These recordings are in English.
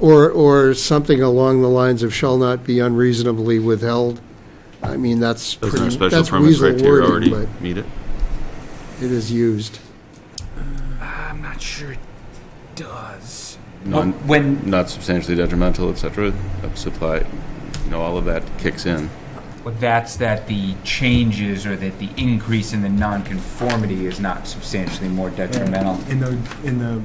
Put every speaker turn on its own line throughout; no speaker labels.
Or, or something along the lines of shall not be unreasonably withheld. I mean, that's
Doesn't our
pretty,
special
that's
permit
weasel
criteria
wording,
already
but
meet it?
it is used.
Uh, I'm not sure it does.
Non-
When,
Not substantially detrimental, et cetera, of supply, you know, all of that kicks in.
well, that's that the changes or that the increase in the nonconformity is not substantially more detrimental.
In the, in the,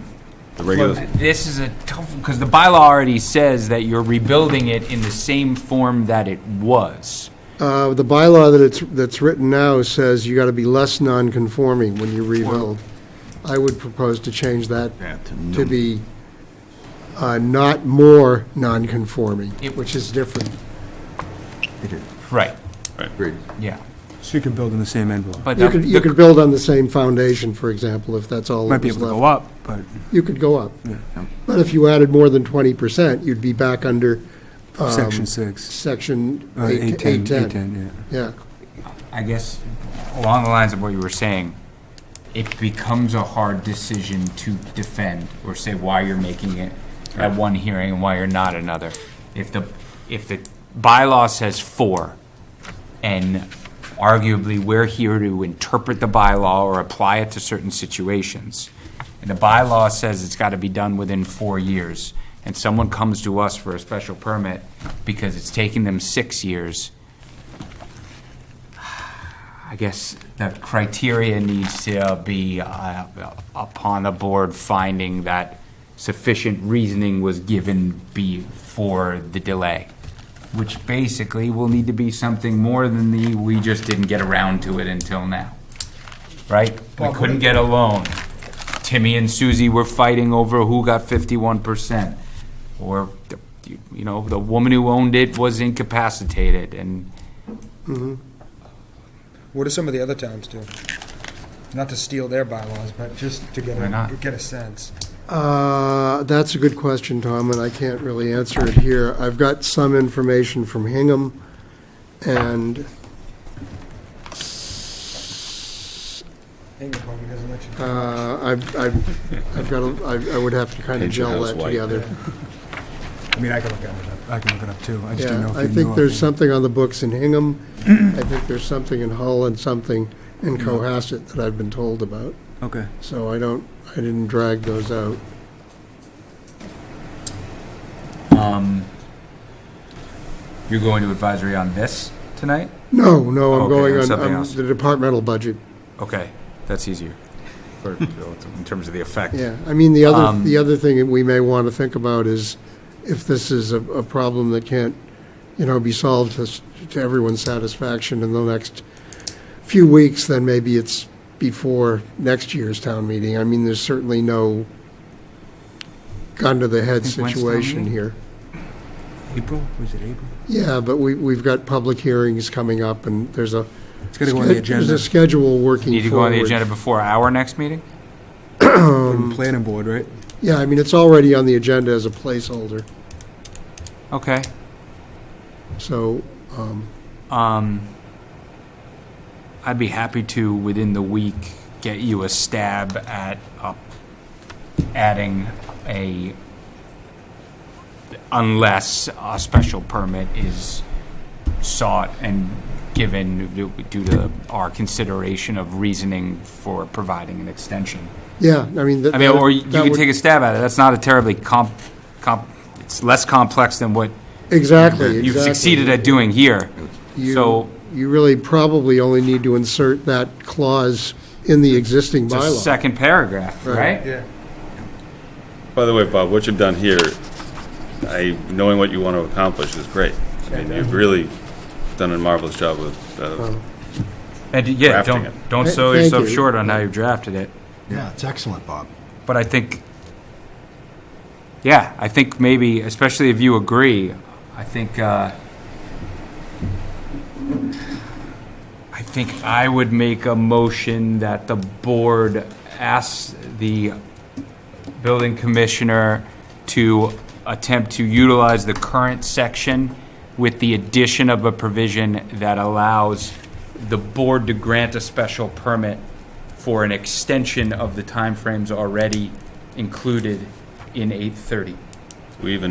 The regular,
This is a tough, because the bylaw already says that you're rebuilding it in the same form that it was.
Uh, the bylaw that it's, that's written now says you gotta be less non-conforming when you rebuild. I would propose to change that to be, uh, not more non-conforming,
It-
which is different.
Right.
right,
Yeah,
so you can build in the same envelope.
but
You
the-
could, you
the-
could build on the same foundation, for example, if that's all
Might
that
be
was
able to
left.
go up, but
You could go up.
Yeah.
But if you added more than twenty percent, you'd be back under um,
section six,
section
uh, eight
eight-
ten, eight
810.
ten, yeah.
Yeah,
I guess along the lines of what you were saying, it becomes a hard decision to defend or say why you're making it at one hearing and why you're not another. If the, if the bylaw says four, and arguably we're here to interpret the bylaw or apply it to certain situations, and the bylaw says it's gotta be done within four years, and someone comes to us for a special permit because it's taking them six years, I guess the criteria needs to be uh, upon the board finding that sufficient reasoning was given before the delay, which basically will need to be something more than the, we just didn't get around to it until now, right? We couldn't get a loan. Timmy and Susie were fighting over who got fifty-one percent. Or, the- you you know, the woman who owned it was incapacitated and
What do some of the other towns do? Not to steal their bylaws, but just to get
Why
a,
not?
get a sense.
Uh, That's a good question, Tom, and I can't really answer it here. I've got some information from Hingham, and
Hingham probably doesn't let you.
uh, I've I've- I've got, a- I I would have to kind of
Paint your
gel
house
that
white.
together.
I mean, I can look it up, I can look it up too, I just didn't know
Yeah,
if you
I
knew
think
off
there's
the-
something on the books in Hingham. I think there's something in Hull and something in
Mm-hmm.
Cohasset that I've been told about.
Okay,
So I don't, I didn't drag those out.
Um, you're going to advisory on this tonight?
No, no, I'm
Okay,
going
there's
on
something
I'm
else.
the departmental budget.
Okay, that's easier for, in terms of the effect.
Yeah, I mean, the other,
Um,
the other thing that we may want to think about is if this is a, a problem that can't, you know, be solved to, s- to everyone's satisfaction in the next few weeks, then maybe it's before next year's town meeting. I mean, there's certainly no gun to the head
Think when's town
situation
meeting?
here.
April, was it April?
Yeah, but we, we've got public hearings coming up and there's a,
It's gotta go on the
there's
agenda,
a schedule working
Need to go on the
forward.
agenda before our next meeting?
From planning board, right?
Yeah, I mean, it's already on the agenda as a placeholder,
Okay,
so, um,
um, I'd be happy to, within the week, get you a stab at, uh, adding a, unless a special permit is sought and given due due to our consideration of reasoning for providing an extension.
yeah, I mean. that-
I mean, or you
that
can
would-
take a stab at it. That's not a terribly comp, comp, it's less complex than what
Exactly, exactly.
you've succeeded at doing here.
You-
So
You really probably only need to insert that clause in the existing
it's a
bylaw.
second paragraph,
Right.
right?
By the way, Bob, what you've done here, I, knowing what you want to accomplish is great. I mean, you've really done a marvelous job with, uh,
And yeah,
Drafting
don't, don't
Th-
sell
thank
yourself
you.
short on how you drafted it.
Yeah, it's excellent, Bob.
But I think, yeah, I think maybe, especially if you agree, I think, uh, I think I would make a motion that the board asks the building commissioner to attempt to utilize the current section with the addition of a provision that allows the board to grant a special permit for an extension of the timeframes already included in 830.
we even